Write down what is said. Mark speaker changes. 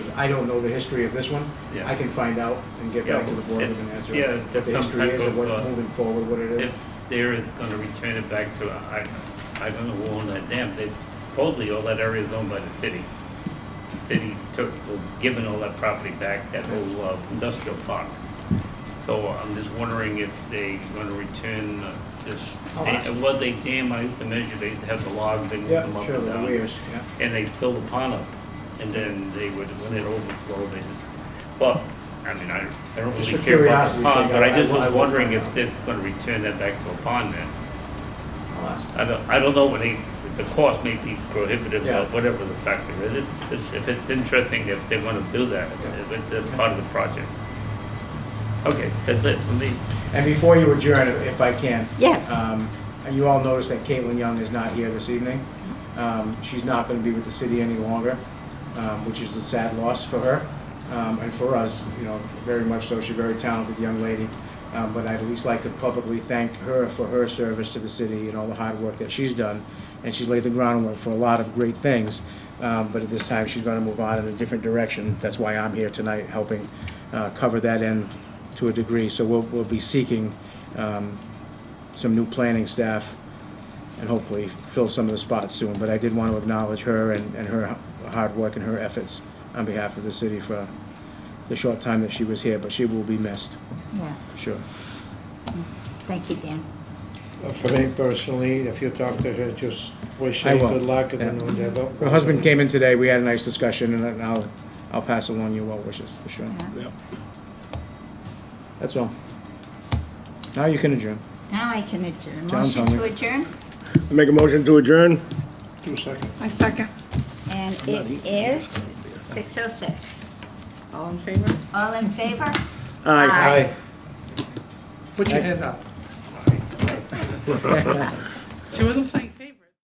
Speaker 1: I don't know the history of this one.
Speaker 2: Yeah.
Speaker 1: I can find out and get back to the board with an answer.
Speaker 2: Yeah, if- yeah,
Speaker 1: The
Speaker 2: some
Speaker 1: history
Speaker 2: type
Speaker 1: is of what,
Speaker 2: of, uh,
Speaker 1: moving forward, what it is.
Speaker 2: If there is gonna return it back to, I, I don't know who owned that dam, they supposedly all that area is owned by the city. The City took, was given all that property back, that whole uh, industrial park. So uh, I'm just wondering if they gonna return uh, this,
Speaker 1: I'll ask.
Speaker 2: it was a dam, I used to measure, they have the logs, they move them
Speaker 1: Oh, Yeah,
Speaker 2: up
Speaker 1: sure,
Speaker 2: and
Speaker 1: the
Speaker 2: down.
Speaker 1: weirs, yeah.
Speaker 2: and they fill the pond up, and then they would, when it overflowed, they just, well, I mean, I, I don't
Speaker 1: Just
Speaker 2: really
Speaker 1: for
Speaker 2: care about the
Speaker 1: curiosity's
Speaker 2: pond,
Speaker 1: sake,
Speaker 2: but
Speaker 1: I-
Speaker 2: I just
Speaker 1: I will- I
Speaker 2: was
Speaker 1: will
Speaker 2: wondering
Speaker 1: find
Speaker 2: if
Speaker 1: out.
Speaker 2: it's gonna return that back to a pond then.
Speaker 1: I'll ask.
Speaker 2: I don't, I don't know when they, the cost may be prohibitive,
Speaker 1: Yeah.
Speaker 2: or whatever the factor is, It's- it's- if it's interesting, if they wanna do that, if it's a part of the project. Okay, that's it for me.
Speaker 1: And before you adjourn, if I can.
Speaker 3: Yes.
Speaker 1: um, And you all noticed that Caitlin Young is not here this evening. Um, She's not going to be with the city any longer, um, which is a sad loss for her um, and for us, you know, very much so. She's a very talented young lady. Um, But I'd at least like to publicly thank her for her service to the city and all the hard work that she's done. And she's laid the groundwork for a lot of great things. Um, But at this time, she's going to move on in a different direction. That's why I'm here tonight, helping uh, cover that end to a degree. So we'll, we'll be seeking um, some new planning staff and hopefully fill some of the spots soon. But I did want to acknowledge her and, and her hard work and her efforts on behalf of the city for the short time that she was here, but she will be missed,
Speaker 3: Yeah,
Speaker 1: for sure.
Speaker 3: thank you, Dan.
Speaker 4: For me personally, if you talk to her, just wish
Speaker 1: I
Speaker 4: her
Speaker 1: will,
Speaker 4: good luck and then
Speaker 1: yeah.
Speaker 4: whatever.
Speaker 1: Her husband came in today, we had a nice discussion, and I- I'll, I'll pass along your well wishes, for sure.
Speaker 3: Yeah.
Speaker 1: That's all. Now you can adjourn.
Speaker 3: Now I can adjourn.
Speaker 1: John's
Speaker 3: Motion to
Speaker 1: hungry.
Speaker 3: adjourn,
Speaker 5: Make a motion to adjourn?
Speaker 4: Two seconds.
Speaker 6: I second.
Speaker 3: and it is 6:06.
Speaker 6: All in favor?
Speaker 3: All in favor?
Speaker 5: Aye.
Speaker 4: Aye. Put your hand up.
Speaker 6: She wasn't playing